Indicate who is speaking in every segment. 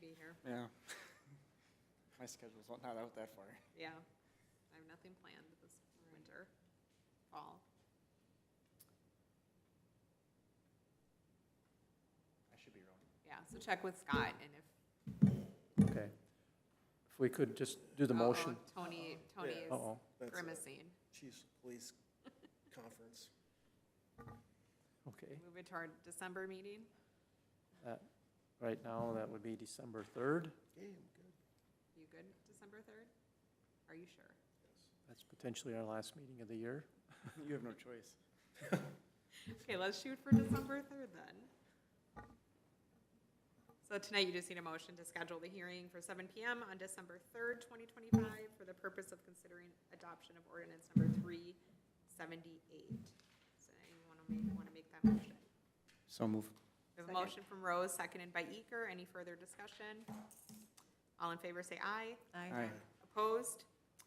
Speaker 1: be here.
Speaker 2: Yeah. My schedule's not out that far.
Speaker 1: Yeah. I have nothing planned this winter, fall.
Speaker 2: I should be wrong.
Speaker 1: Yeah, so check with Scott and if.
Speaker 3: Okay. If we could just do the
Speaker 1: Uh-oh,
Speaker 3: motion.
Speaker 1: uh, Tony, Tony
Speaker 4: Yeah.
Speaker 1: is
Speaker 3: Uh-oh.
Speaker 4: That's a
Speaker 1: grimacing.
Speaker 4: Chiefs of Police Conference.
Speaker 3: Okay.
Speaker 1: Move it to our December meeting.
Speaker 3: Right now, that would be December 3rd.
Speaker 4: Yeah, I'm good.
Speaker 1: You good, December third? Are you sure?
Speaker 3: That's potentially our last meeting of the year.
Speaker 2: You have no choice.
Speaker 1: Okay, let's shoot for December third then. So tonight you just need a motion to schedule the hearing for seven PM on December third, twenty twenty-five for the purpose of considering adoption of ordinance number three seventy-eight. Does anyone wanna make, wanna make that motion?
Speaker 2: So move.
Speaker 1: We have a
Speaker 5: Second.
Speaker 1: motion from Rose, seconded by Eker. Any further discussion? All in favor say aye.
Speaker 2: Aye.
Speaker 1: Opposed?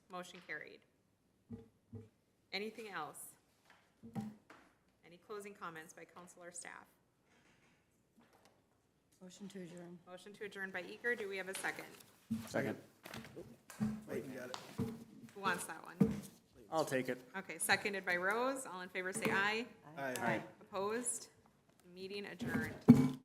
Speaker 1: Motion carried. Anything else? Any closing comments by council or staff?
Speaker 5: Motion to adjourn.
Speaker 1: Motion to adjourn by Eager. Do we have a second?
Speaker 2: Second.
Speaker 4: Clayton got it.
Speaker 1: Who wants that one?
Speaker 2: I'll take it.
Speaker 1: Okay, seconded by Rose. All in favor say aye.
Speaker 4: Aye.
Speaker 1: Opposed? Meeting adjourned.